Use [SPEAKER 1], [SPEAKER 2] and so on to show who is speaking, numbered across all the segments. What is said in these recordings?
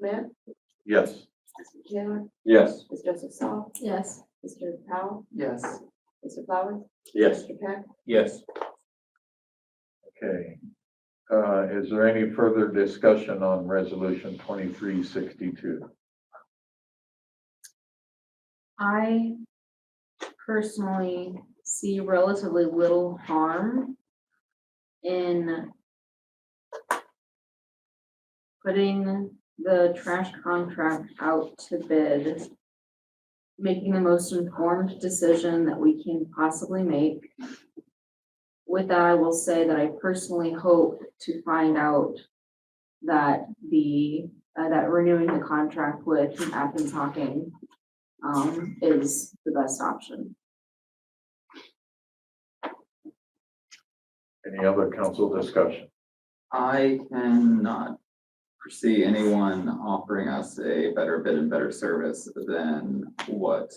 [SPEAKER 1] Matt,
[SPEAKER 2] Yes.
[SPEAKER 1] Mr. Taylor,
[SPEAKER 2] Yes.
[SPEAKER 1] Ms. Joseph Saul,
[SPEAKER 3] Yes.
[SPEAKER 1] Mr. Powell,
[SPEAKER 4] Yes.
[SPEAKER 1] Mr. Flowers,
[SPEAKER 2] Yes.
[SPEAKER 1] Mr. Peck,
[SPEAKER 2] Yes.
[SPEAKER 5] Okay. Uh, is there any further discussion on resolution twenty-three sixty-two?
[SPEAKER 3] I personally see relatively little harm in putting the trash contract out to bid, making the most informed decision that we can possibly make. With that, I will say that I personally hope to find out that the, uh, that renewing the contract with Athens Hocking um, is the best option.
[SPEAKER 5] Any other council discussion?
[SPEAKER 4] I cannot foresee anyone offering us a better bid and better service than what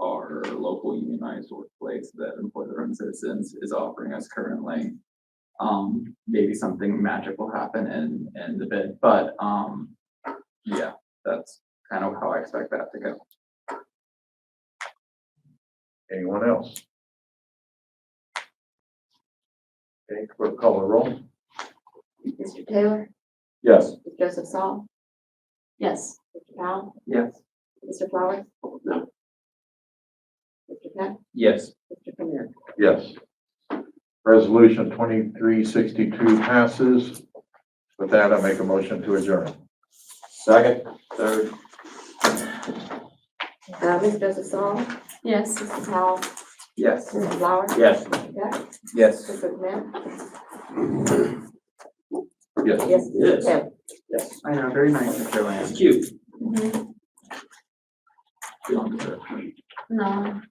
[SPEAKER 4] our local unionized workplace that employ their own citizens is offering us currently. Um, maybe something magic will happen in, in the bid, but, um, yeah, that's kind of how I expect that to go.
[SPEAKER 5] Anyone else? Okay, clerk call a roll.
[SPEAKER 1] Mr. Taylor,
[SPEAKER 2] Yes.
[SPEAKER 1] Ms. Joseph Saul,
[SPEAKER 3] Yes.
[SPEAKER 1] Mr. Powell,
[SPEAKER 4] Yes.
[SPEAKER 1] Mr. Flowers. No. Mr. Peck,
[SPEAKER 2] Yes.
[SPEAKER 1] Mr. Premier.
[SPEAKER 5] Yes. Resolution twenty-three sixty-two passes. With that, I make a motion to adjourn.
[SPEAKER 2] Second, third.
[SPEAKER 1] Uh, Ms. Joseph Saul,
[SPEAKER 3] Yes.
[SPEAKER 1] Mr. Powell,
[SPEAKER 4] Yes.
[SPEAKER 1] Mr. Flowers.
[SPEAKER 2] Yes.
[SPEAKER 1] Mr. Peck,
[SPEAKER 2] Yes.
[SPEAKER 1] Mr. Clement,
[SPEAKER 5] Yes.
[SPEAKER 1] yes, Mr.
[SPEAKER 2] Yes.
[SPEAKER 1] Taylor.
[SPEAKER 4] I know, very nice, Mm-hmm. Mr. Lance.
[SPEAKER 2] Cute.
[SPEAKER 4] You don't deserve it.
[SPEAKER 3] No.